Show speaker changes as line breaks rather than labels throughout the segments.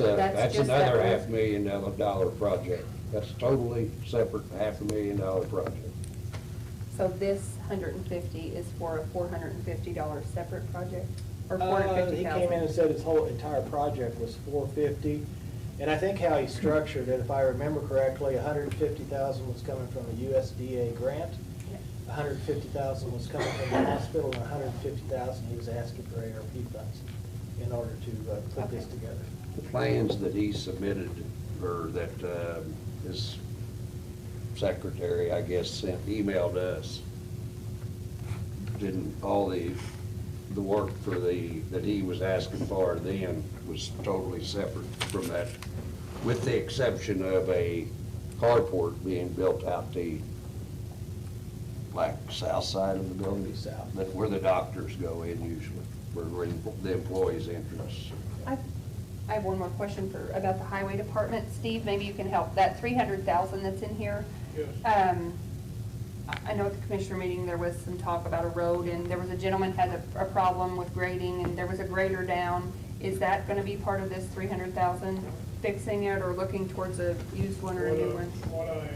Uh,
That's
That's
just
another
that
half
one.
million dollar- dollar project. That's totally separate half a million dollar project.
So this hundred and fifty is for a four hundred and fifty dollar separate project, or four
Uh,
hundred and fifty
He came in and
thousand?
said his whole entire project was four fifty, and I think how he structured it, if I remember correctly, a hundred and fifty thousand was coming from a USDA grant, a hundred and fifty thousand was coming from the hospital, and a hundred and fifty thousand he was asking for ARP funds in order to uh, put this
Okay.
together.
The plans that he submitted, or that uh, his secretary, I guess, sent, emailed us, didn't, all the, the work for the, that he was asking for then was totally separate from that, with the exception of a carport being built out the, like, south side of the building.
South.
That where the doctors go in usually, where- where the employees' entrance.
I I have one more question for, about the highway department. Steve, maybe you can help. That three hundred thousand that's in here. Um, I- I know at the commissioner meeting, there was some talk about a road, and there was a gentleman had a, a problem with grading, and there was a grader down. Is that gonna be part of this three hundred thousand, fixing it or looking towards a used one or a new
What I-
one?
What I am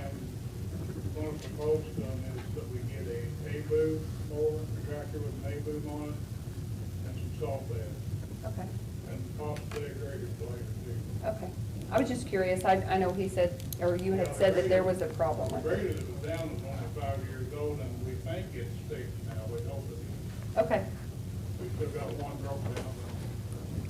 going to propose on is that we get a Nabu mower, a tractor with Nabu on it, and some salt bed,
Okay.
and possibly a grader blade too.
Okay, I was just curious, I, I know he said, or you had said that there was a problem
The
with it.
grader that was down was only five years old, and we think it's fixed now, we hope it is.
Okay,
We still got one broken down.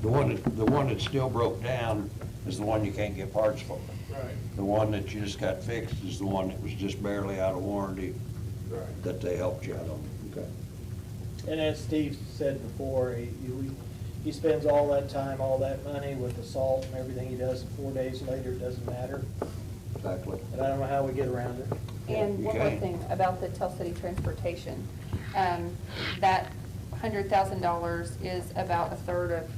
The one, that- the one that still broke down is the one you can't get parts for.
Right,
The one that you just got fixed is the one that was just barely out of warranty
right.
that they helped you out on. Okay.
And as Steve said before, he, he- he spends all that time, all that money with the salt and everything he does, and four days later, it doesn't matter,
Exactly.
and I don't know how we get around it.
and one more
Okay.
thing about the Tell City Transportation. Um, that hundred thousand dollars is about a third of,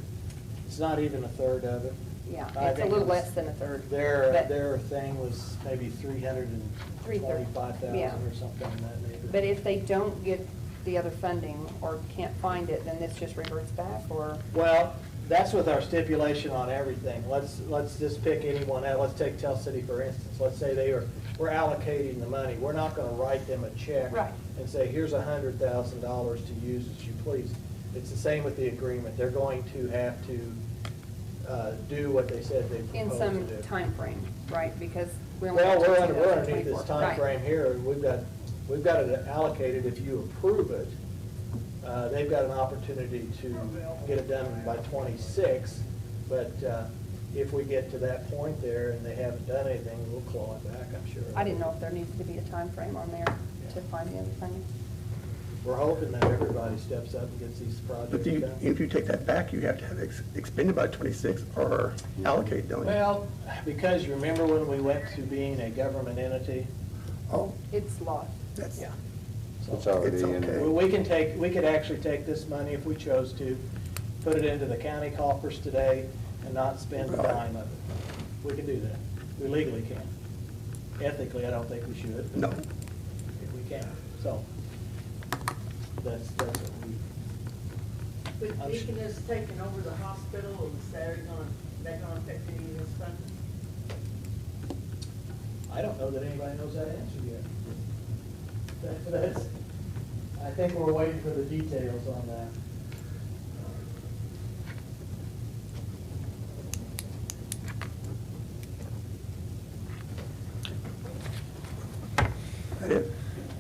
It's not even a third of it.
yeah,
I
it's a
think
little
it's-
less than a third.
Their,
but-
their thing was maybe three hundred and twenty-five
Yeah.
thousand or something in that neighborhood.
But if they don't get the other funding or can't find it, then this just reverts back, or,
Well, that's with our stipulation on everything. Let's, let's just pick anyone out. Let's take Tell City, for instance. Let's say they are, we're allocating the money. We're not gonna write them a check.
Right.
And say, here's a hundred thousand dollars to use as you please. It's the same with the agreement. They're going to have to, uh, do what they said they
in
proposed
some
to do.
time frame, right? Because we're. only
Well,
up to
we're under, we're underneath
2024.
this
Right.
timeframe here, and we've got, we've got it allocated, if you approve it, uh, they've got an opportunity to get it done by twenty-six, but, uh, if we get to that point there and they haven't done anything, we'll claw it back, I'm sure.
I didn't know if there needed to be a time frame on there to find the other funding.
We're hoping that everybody steps up and gets these
But
projects
do you,
done.
if you take that back, you have to have ex- expended by twenty-six or allocate, don't you?
Well, because you remember when we went to being a government entity?
Oh,
It's lost.
that's,
So-
It's already in
It's
Well,
there.
okay.
we can take, we could actually take this money if we chose to, put it into the county coffers today and not spend a dime of it. We can do that. We legally can. Ethically, I don't think we should. but
no,
We can, so. That's, that's what we,
But Deacon has taken over the hospital and they're gonna, they're gonna pick any of this funding?
I don't know that anybody knows that answer yet. That- That's, I think we're waiting for the details on that.
that is,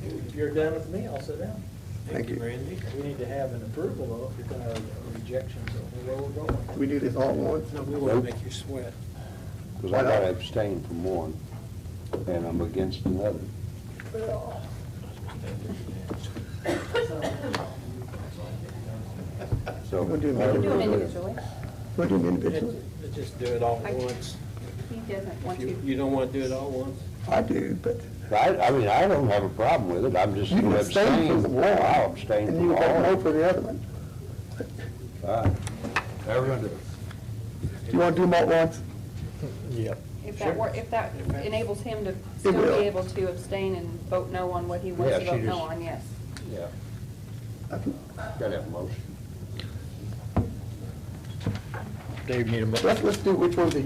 If you're done with me, I'll sit down.
thank you.
Randy. We need to have an approval though, if you're gonna have a rejection, so where we're going.
Do we do this all at once?
No, we won't make you sweat.
Because I gotta abstain from one, and I'm against another. So.
We'll do them
I would
Do them
Individually.
individually.
We'll do them individually.
Just just do it all
I-
at once.
He doesn't
If
want
You
to.
you don't want to do it all at once?
I do, but,
I, I mean, I don't have a problem with it, I'm just
You
gonna
abstain from
abstain.
the one.
Well, I'll abstain
and
from
you
all.
got no for the other one.
Everyone do.
Do you want to do them all at once?
If that were, if that enables him to still
will.
be able to abstain and vote no on what he wants
Yeah,
to
she
vote no
just-
on, yes.
Yeah,
I think-
gotta have a motion.
Let's, let's do which ones are